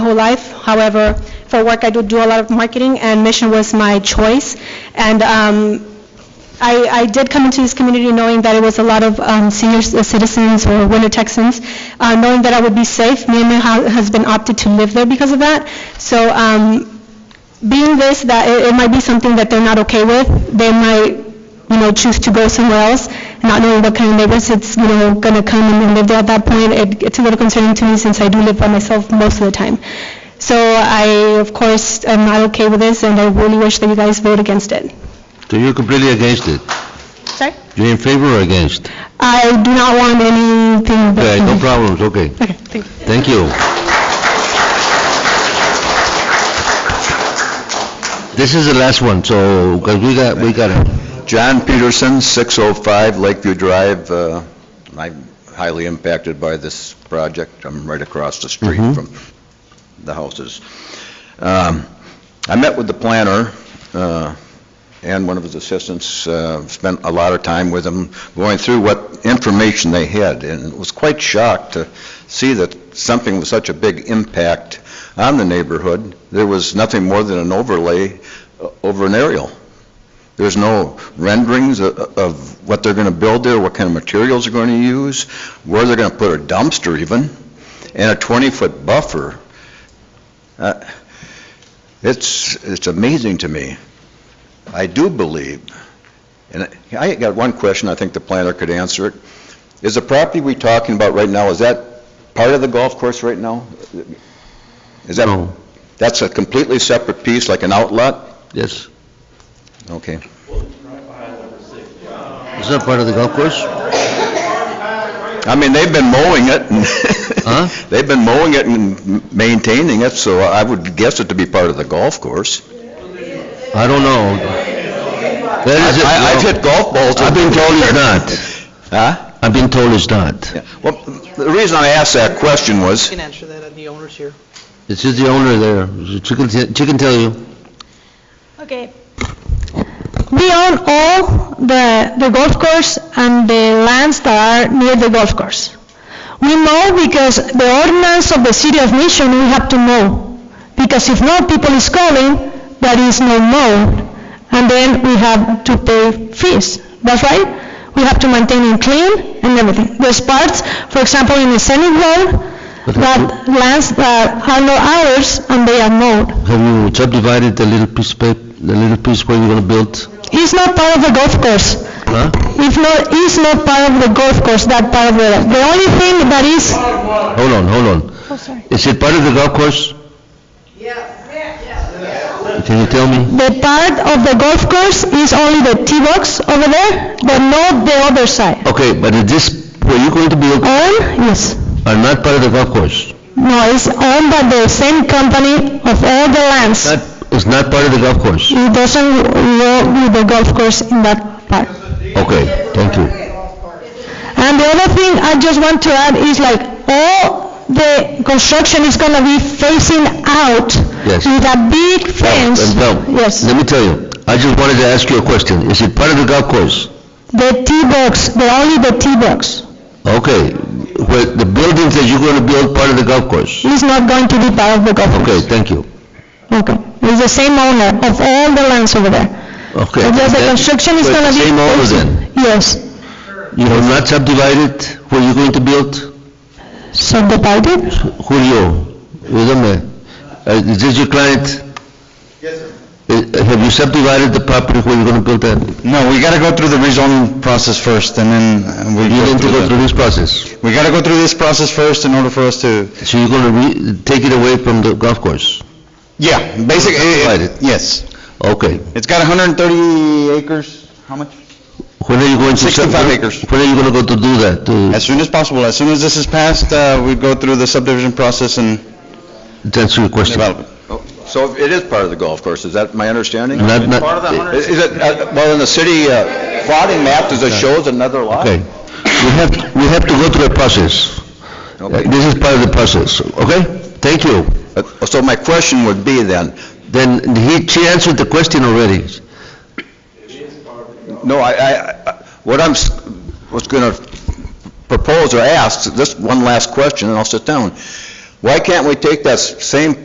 whole life. However, for work, I do do a lot of marketing, and Mission was my choice. And um, I I did come into this community knowing that it was a lot of um, senior c- citizens or winter Texans, uh, knowing that I would be safe. Me and my hu- husband opted to live there because of that. So um, being this, that it it might be something that they're not okay with, they might, you know, choose to go somewhere else, not knowing what kind of neighbors it's, you know, going to come and live there at that point. It- It's a little concerning to me since I do live by myself most of the time. So I, of course, am not okay with this, and I really wish that you guys vote against it. So you're completely against it? Sorry? You're in favor or against? I do not want anything but... Okay, no problems, okay. Okay, thank you. Thank you. This is the last one, so, because we got, we got it. John Peterson, 605 Lakeview Drive. Uh, I'm highly impacted by this project. I'm right across the street Mhm. from the houses. Um, I met with the planner uh, and one of his assistants, uh, spent a lot of time with him, going through what information they had, and was quite shocked to see that something with such a big impact on the neighborhood, there was nothing more than an overlay uh, over an aerial. There's no renderings o- of what they're going to build there, what kind of materials they're going to use, where they're going to put a dumpster even, and a 20-foot buffer. Uh, It's, it's amazing to me. I do believe, and I I got one question, I think the planner could answer it. Is the property we talking about right now, is that part of the golf course right now? Is that, No. that's a completely separate piece, like an outlet? Yes. Okay. Is that part of the golf course? I mean, they've been mowing it, and they've been mowing it and maintaining it, so I would guess it to be part of the golf course. I don't know. That is it, I- I've no. hit golf balls. I've been told it's not. Huh? I've been told it's not. Yeah. Well, the reason I asked that question was, can answer that, and the owner's here. It's just the owner there. She can, te- she can tell you. Okay. We own all the, the golf course and the lands that are near the golf course. We mow because the ordinance of the city of Mission, we have to mow. Because if no people is calling, there is no mow, and then we have to pay fees. That's right. We have to maintain it clean and everything. There's parts, for example, in the scenic road, that lands that are not ours and they are mowed. Have you subdivided the little piece, pa- the little piece where you're going to build? It's not part of the golf course. Huh? It's not, it's not part of the golf course, that part of the, the only thing that is, Hold on, hold on. oh, sorry, Is it part of the golf course? Yes. Can you tell me? the part of the golf course is only the tee box over there, but not the other side. Okay, but is this, where you're going to build All, yes. are not part of the golf course? No, it's owned by the same company of all the lands. That is not part of the golf course? It doesn't go with the golf course in that part. Okay, thank you. And the other thing I just want to add is like, all the construction is gonna be facing out Yes. with a big fence. And now, Yes, Let me tell you, I just wanted to ask you a question. Is it part of the golf course? the tee box, the only the tee box Okay, where the buildings that you're going to build part of the golf course? is not going to be part of the golf Okay, course. thank you. Okay. It's the same owner of all the lands over there. Okay. It's just the That- construction is so it's gonna the be... Same owner facing- then? Yes, You have not subdivided where you're going to build? subdivided. Julio, dígame, uh, is this your client? Yes, sir. Have you subdivided the property where you're going to build that? No, we gotta go through the rezoning process first, and then uh, we You go need to through go the... through this process. We gotta go through this process first in order for us to... So you're going to re, take it away from the golf course? Yeah, basically, Divide it. yes. Okay. It's got 130 acres, how much? When are you going to? sub- 65 acres. When are you going to go to do that? As To- soon as possible, as soon as this is passed, uh, we go through the subdivision process and To answer your question. development. so it is part of the golf course, is that my understanding? Not- not- Is is it, uh, well, in the city uh, plotting map, does it show it's another lot? Okay. We have, we have to go through a process. Uh, Okay. This is part of the process, okay? Thank you. Uh, So my question would be then, Then he, she answered the question already. No, I, I- I, what I'm, s- was going to propose or ask, this one last question, and I'll sit down. Why can't we take that s- same